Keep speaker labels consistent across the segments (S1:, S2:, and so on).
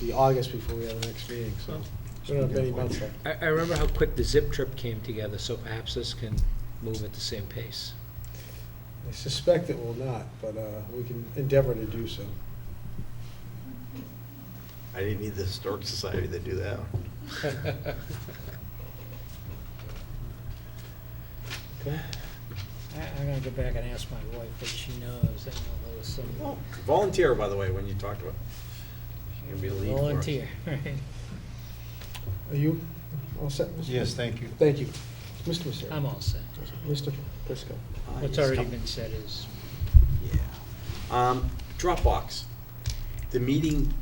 S1: be August before we have the next meeting, Oh, so we don't have many months left.
S2: I, I remember how quick the zip trip came together, so perhaps this can move at the same pace.
S1: I suspect it will not, but uh, we can endeavor to do so.
S3: I didn't need the Historic Society to do that.
S1: Okay.
S4: I, I'm gonna go back and ask my wife what she knows, I know there was some.
S3: Volunteer, by the way, when you talked about, you can be a lead for us.
S4: Volunteer, right.
S1: Are you all set? Mr.
S5: Yes, thank you.
S1: Thank you. Mr. Misery?
S4: I'm all set.
S1: Mr. Prisco?
S3: Uh,
S4: What's
S3: yes,
S4: already
S3: come-
S4: been said is,
S3: Yeah. Um, Dropbox, the meeting,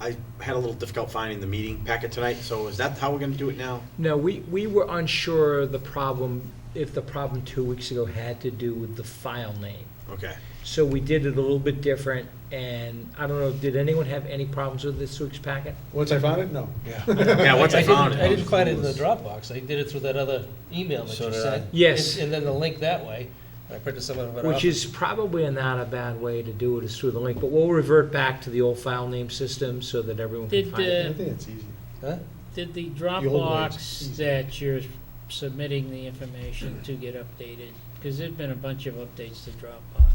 S3: I had a little difficult finding the meeting packet tonight, so is that how we're gonna do it now?
S2: No, we, we were unsure the problem, if the problem two weeks ago had to do with the file name.
S3: Okay.
S2: So we did it a little bit different, and I don't know, did anyone have any problems with this week's packet?
S1: Once I found it, no.
S3: Yeah, once I
S6: didn't-
S3: found it.
S6: I didn't find it in the Dropbox, I did it through that other email that
S5: So
S6: you
S5: did I.
S6: sent.
S2: Yes.
S6: And and then the link that way, and I printed some of it off.
S2: Which is probably not a bad way to do it, is through the link, but we'll revert back to the old file name system so that everyone can
S4: Did, uh,
S2: find it.
S1: I think it's easy.
S6: Huh?
S4: did the
S1: old ways.
S4: Dropbox that you're submitting the information to get updated? Because there've been a bunch of updates to Dropbox.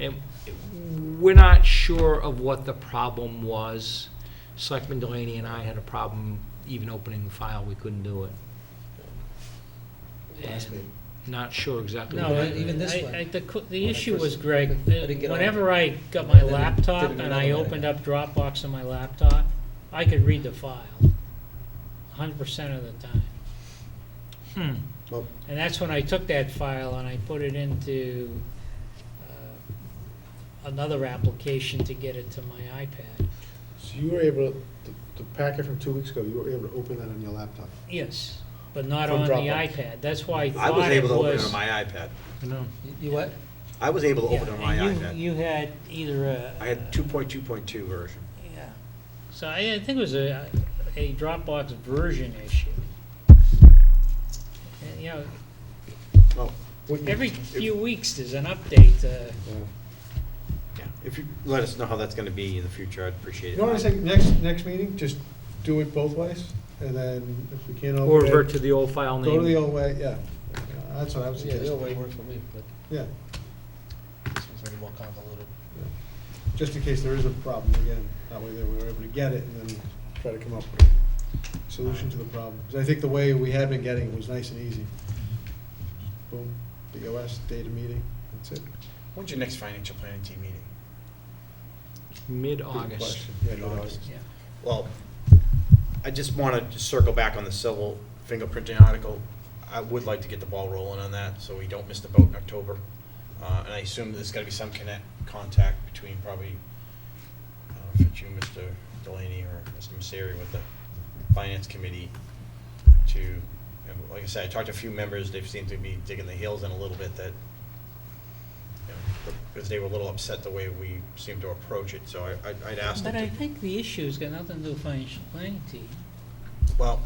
S2: And we're not sure of what the problem was. Selectman Delaney and I had a problem even opening the file, we couldn't do it.
S1: Last
S2: And
S1: meeting.
S2: Not sure exactly.
S4: No,
S2: what
S6: I-
S4: I-
S2: happened.
S6: even this
S4: I,
S6: one.
S4: I, the, co- the
S6: When I
S4: issue
S6: first-
S4: was, Greg,
S6: I didn't get all
S4: whenever I got
S6: I
S4: my
S6: didn't-
S4: laptop
S6: didn't
S4: and
S6: know
S4: I
S6: that.
S4: opened up Dropbox on my laptop, I could read the file, hundred percent of the time.
S2: Hmm.
S1: Well,
S4: And that's when I took that file and I put it into uh, another application to get it to my iPad.
S1: So you were able, to the- the packet from two weeks ago, you were able to open that on your laptop?
S4: Yes, but not
S1: From
S4: on the
S1: Dropbox.
S4: iPad. That's why I
S3: I was
S4: thought it
S3: able to open it
S4: was.
S3: on my iPad.
S2: I know.
S6: You- You what?
S3: I was able to open it on
S4: Yeah,
S3: my
S4: and
S3: iPad.
S4: You, you had either a.
S3: I had two point two point two version.
S4: Yeah. So I, I think it was a, a Dropbox version issue. And, you know,
S3: Well,
S4: every few weeks there's an update, uh,
S1: Yeah.
S3: yeah, if you let us know how that's gonna be in the future, I'd appreciate it.
S1: You know what I'm saying, next, next meeting, just do it both ways, and then if we can't
S2: Or
S1: open it.
S2: revert to the old file name.
S1: Go to the old way, yeah, that's what I was
S6: Yeah, the old way
S1: suggesting,
S6: worked for me, but
S1: yeah,
S6: this one's a little more convoluted.
S1: just in case there is a problem again, that way that we were able to get it and then try to come up with a solution to the problem. 'Cause I think the way we had been getting it was nice and easy. Boom, BOS, data meeting, that's it.
S3: When's your next financial planning team meeting?
S1: Good
S2: Mid-August.
S1: question. Yeah, good August.
S4: yeah.
S3: Well, I just want to circle back on the civil fingerprinting article. I would like to get the ball rolling on that, so we don't miss the boat in October. Uh, And I assume there's got to be some connect, contact between probably, I don't know if it's you, Mr. Delaney, or Mr. Misery with the Finance Committee to, and like I said, I talked to a few members, they seem to be digging the heels in a little bit that, you know, because they were a little upset the way we seemed to approach it, so I- I'd- I'd ask them
S4: But
S3: to
S4: I think the issue's got nothing to do with financial planning team.
S3: Well,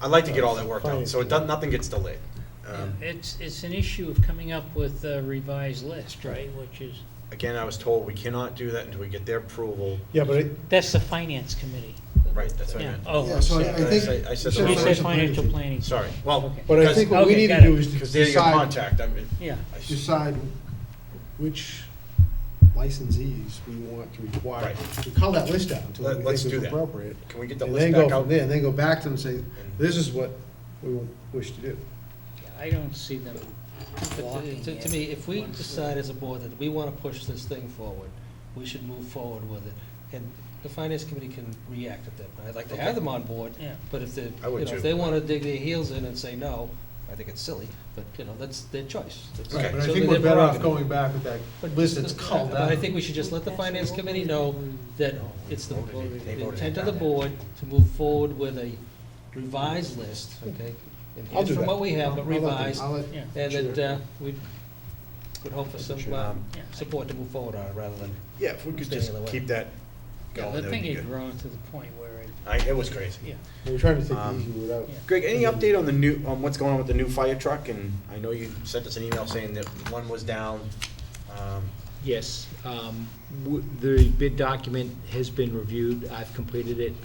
S3: I'd like to get all that worked out,
S1: Finance
S3: so it does, nothing gets delayed. Um,
S4: It's, it's an issue of coming up with a revised list, right, which is,
S3: Again, I was told we cannot do that until we get their approval.
S1: Yeah, but it,
S4: that's the finance committee.
S3: Right, that's what I
S4: Yeah,
S3: meant.
S4: oh,
S1: yeah,
S4: I'm
S1: so I-
S4: sorry.
S1: I
S3: I
S1: think.
S3: said- I said
S1: you
S4: You said
S3: financial
S4: financial planning.
S3: Sorry, well.
S4: Okay.
S1: But I
S3: because-
S1: think what we
S4: Okay,
S1: need to
S4: got it.
S1: do is
S3: Because they're your
S1: decide,
S3: contact, I mean.
S4: Yeah,
S3: I s-
S1: decide which licensees we want to require.
S3: Right.
S1: We call that list out until
S3: Let-
S1: we
S3: let's
S1: think
S3: do
S1: it's
S3: that.
S1: appropriate.
S3: Can we get the
S1: And then
S3: list
S1: go
S3: back
S1: from
S3: out?
S1: there, and then go back to them and say, this is what we wish to do.
S4: I don't see them
S6: But
S4: blocking
S6: to- to-
S4: it.
S6: To me, if we
S4: once
S6: decide as a board that we want to push this thing forward, we should move forward with it. And the finance committee can react at that point. I'd like to have them on board,
S4: Yeah.
S6: but if they, you
S3: I
S6: know,
S3: would
S6: if
S3: too.
S6: they want to dig their heels in and say no, I think it's silly, but, you know, that's their choice. That's-
S3: Okay.
S1: But I
S6: so
S1: think
S6: they're
S1: we're better off
S6: prerogative.
S1: going back with that
S6: But-
S1: list that's called
S6: But I
S1: out.
S6: think we should just let the finance committee know that it's the
S3: They
S6: the
S3: voted
S6: intent
S3: it
S6: of the
S3: down.
S6: board to move forward with a revised list, okay? And
S1: I'll do
S6: From
S1: that.
S6: what we have,
S1: I'll
S6: but
S1: let them-
S6: revised,
S1: I'll let-
S4: Yeah.
S6: and that
S1: Sure.
S6: uh, we could hope for some um,
S4: Yeah.
S6: support to move forward on it rather than,
S3: Yeah, if we could
S6: Stay
S3: just
S6: out of the way.
S3: keep that
S4: Yeah,
S3: going,
S4: the
S3: that would
S4: thing
S3: be
S4: had
S3: good.
S4: grown to the point where it,
S3: I, it was crazy.
S4: yeah,
S1: We're trying to take the
S3: Um,
S1: easy route out.
S4: yeah.
S3: Greg, any update on the new, on what's going on with the new fire truck? And I know you sent us an email saying that one was down. Um,
S2: Yes, um, w- the bid document has been reviewed. I've completed it.